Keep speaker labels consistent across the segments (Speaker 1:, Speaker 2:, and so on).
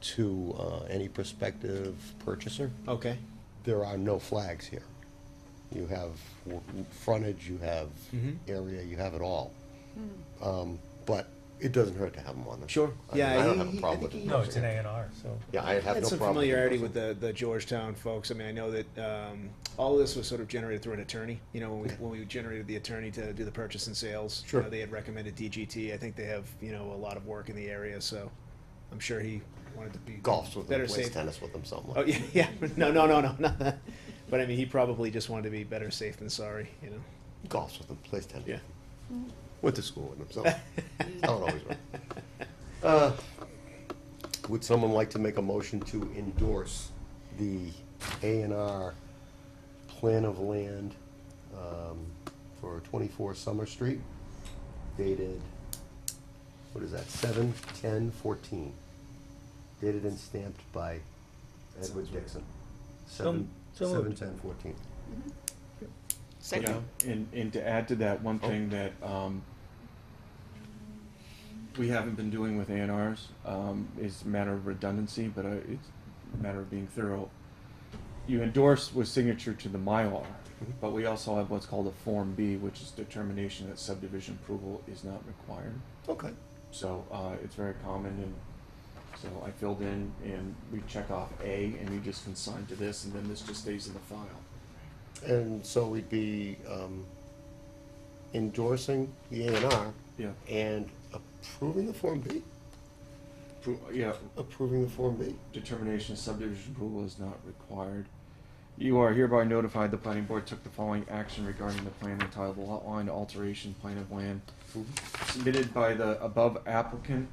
Speaker 1: to uh, any prospective purchaser,
Speaker 2: Okay,
Speaker 1: there are no flags here. You have w- w- frontage, you have
Speaker 2: Mhm.
Speaker 1: area, you have it all. Um, But it doesn't hurt to have them on there.
Speaker 2: Sure.
Speaker 1: I mean,
Speaker 2: Yeah,
Speaker 1: I don't
Speaker 2: he-
Speaker 1: have
Speaker 2: he-
Speaker 1: a
Speaker 2: I
Speaker 1: problem
Speaker 2: think
Speaker 1: with
Speaker 2: he
Speaker 1: it.
Speaker 3: No, it's an A and R, so.
Speaker 1: Yeah, I have no
Speaker 2: had
Speaker 1: problem.
Speaker 2: some
Speaker 1: with it.
Speaker 2: familiarity with the, the Georgetown folks. I mean, I know that um, all of this was sort of generated through an attorney. You know, when we, when we generated the attorney to do the purchase and sales, you
Speaker 1: Sure.
Speaker 2: know, they had recommended DGT. I think they have you know a lot of work in the area, so I'm sure he wanted to be
Speaker 1: Golfs with them,
Speaker 2: better
Speaker 1: plays
Speaker 2: safe.
Speaker 1: tennis with them, something
Speaker 2: Oh
Speaker 1: like.
Speaker 2: yeah, yeah. No, no, no, no, not that. But I mean, he probably just wanted to be better safe than sorry. You know.
Speaker 1: Golfs with them, plays tennis.
Speaker 2: Yeah.
Speaker 1: Went to school with them, so. How it always works. Uh, Would someone like to make a motion to endorse the A and R plan of land um, for 24 Summer Street dated, what is that, 7/10/14? Dated and stamped by Edward Dixon. Seven-
Speaker 3: so moved.
Speaker 1: 7/10/14.
Speaker 4: Yeah,
Speaker 5: Second.
Speaker 4: And, and to add to that, one thing that, um, we haven't been doing with A and Rs, um, is a matter of redundancy, but uh, it's a matter of being thorough. You endorse with signature to the Mylar, but we also have what's called a Form B, which is determination that subdivision approval is not required.
Speaker 1: Okay.
Speaker 4: So, uh, it's very common and so I filled in and we check off A and we just consign to this and then this just stays in the file.
Speaker 1: And so we'd be um, endorsing the A and R
Speaker 4: Yeah,
Speaker 1: and approving the Form B?
Speaker 4: Pro- yeah,
Speaker 1: Approving the Form B?
Speaker 4: determination of subdivision approval is not required. You are hereby notified the planning board took the following action regarding the plan entitled Lot Line Alteration Plan of Land Mm-hmm. submitted by the above applicant,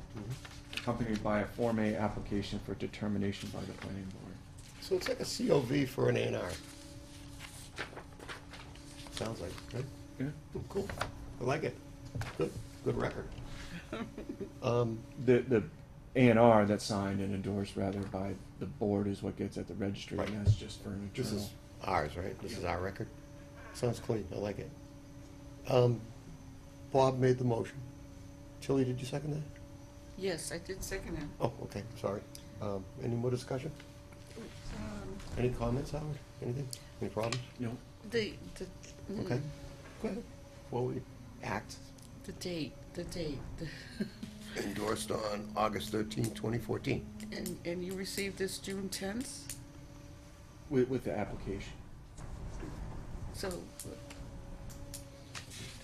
Speaker 4: accompanied by a Form A application for determination by the planning board.
Speaker 1: So it's like a COV for an A and R. Sounds like, right? Oh, Cool. I like it. Good, good record. Um,
Speaker 4: The, the A and R that's signed and endorsed rather by the board is what gets at the registry,
Speaker 1: Right.
Speaker 4: and that's just for an
Speaker 1: This
Speaker 4: internal.
Speaker 1: is ours, right? This is our record? Sounds clean, I like it. Um, Bob made the motion. Tilly, did you second that?
Speaker 5: Yes, I did second it.
Speaker 1: Oh, okay, sorry. Um, any more discussion?
Speaker 4: Oh.
Speaker 5: Um,
Speaker 1: Any comments, Howard? Anything? Any problems?
Speaker 4: No,
Speaker 5: The, the, mm,
Speaker 1: Okay. Go ahead. Well, we act
Speaker 5: the date, the date. the-
Speaker 1: endorsed on August thirteenth, twenty fourteen.
Speaker 5: And, and you received this June tenth?
Speaker 4: with, with the application.
Speaker 5: So,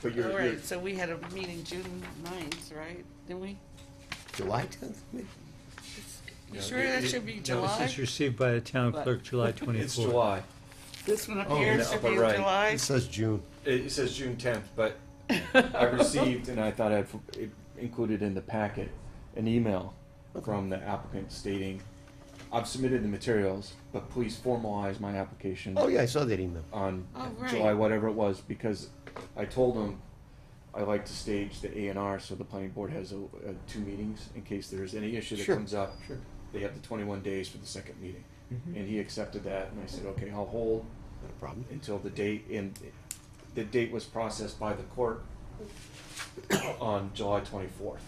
Speaker 4: But
Speaker 5: all
Speaker 4: you're, you're,
Speaker 5: right, so we had a meeting June ninth, right? Didn't we?
Speaker 1: July tenth?
Speaker 5: You
Speaker 4: No,
Speaker 5: sure
Speaker 4: it-
Speaker 5: that
Speaker 4: it-
Speaker 5: should be
Speaker 3: This
Speaker 5: July?
Speaker 3: is received by the town
Speaker 5: But-
Speaker 3: clerk July
Speaker 4: it's
Speaker 3: twenty-fourth.
Speaker 4: July.
Speaker 5: This one
Speaker 4: Oh,
Speaker 5: appears
Speaker 4: no,
Speaker 5: to
Speaker 4: but
Speaker 5: be
Speaker 4: right.
Speaker 5: July.
Speaker 1: says June.
Speaker 4: It it says June tenth, but I received, and I thought I'd f- it included in the packet, an email from the applicant stating, I've submitted the materials, but please formalize my application
Speaker 1: Oh, yeah, I saw that email.
Speaker 4: on
Speaker 5: Oh, right.
Speaker 4: July, whatever it was, because I told them I like to stage the A and R, so the planning board has a, a two meetings in case there's any issue that
Speaker 1: Sure,
Speaker 4: comes up.
Speaker 1: sure. Mm-hmm.
Speaker 4: They have the twenty-one days for the second meeting, and he accepted that, and I said, okay, I'll hold
Speaker 1: Not a problem.
Speaker 4: until the date, and the date was processed by the court on July twenty-fourth.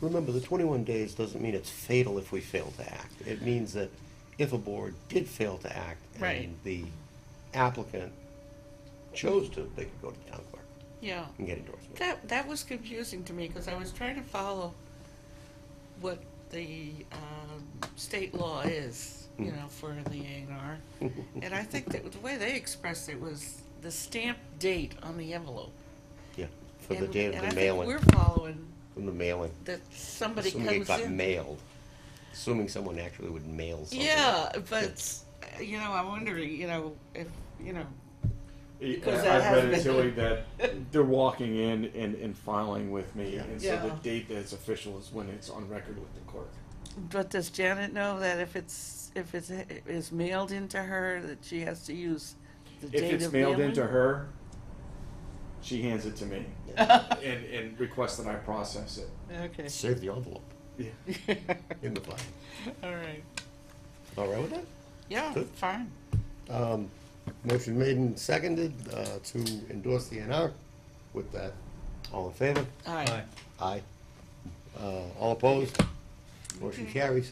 Speaker 1: Remember, the twenty-one days doesn't mean it's fatal if we fail to act. It means that if a board did fail to act
Speaker 5: Right.
Speaker 1: and the applicant chose to, they could go to the town clerk
Speaker 5: Yeah.
Speaker 1: and get endorsement.
Speaker 5: That, that was confusing to me, because I was trying to follow what the um, state law is, you
Speaker 1: Mm.
Speaker 5: know, for the A and R. And I think that the way they expressed it was the stamp date on the envelope.
Speaker 1: Yeah, for the
Speaker 5: And-
Speaker 1: date of
Speaker 5: and I
Speaker 1: the
Speaker 5: think
Speaker 1: mailing,
Speaker 5: we're following
Speaker 1: from the mailing.
Speaker 5: that somebody
Speaker 1: Assuming it
Speaker 5: comes
Speaker 1: got
Speaker 5: in.
Speaker 1: mailed. Assuming someone actually would mail something.
Speaker 5: Yeah, but, uh, you know, I'm wondering, you know, if, you know, Because that
Speaker 4: I've read it,
Speaker 5: has been-
Speaker 4: Tilly, that they're walking in and, and filing with me,
Speaker 1: Yeah.
Speaker 4: and so the
Speaker 5: Yeah.
Speaker 4: date that's official is when it's on record with the court.
Speaker 5: but does Janet know that if it's, if it's, is mailed into her, that she has to use the
Speaker 4: If
Speaker 5: date
Speaker 4: it's
Speaker 5: of
Speaker 4: mailed
Speaker 5: mailing?
Speaker 4: into her, she hands it to me, and, and requests that I process it.
Speaker 5: Okay.
Speaker 1: Save the envelope
Speaker 4: Yeah.
Speaker 1: in the file.
Speaker 5: All right.
Speaker 1: All right with that?
Speaker 5: Yeah,
Speaker 1: Good.
Speaker 5: fine.
Speaker 1: Um, motion made and seconded, uh, to endorse the NR with that. All in favor?
Speaker 5: All
Speaker 3: Aye.
Speaker 5: right. Mm-hmm.
Speaker 1: Aye. Uh, all opposed? Motion carries.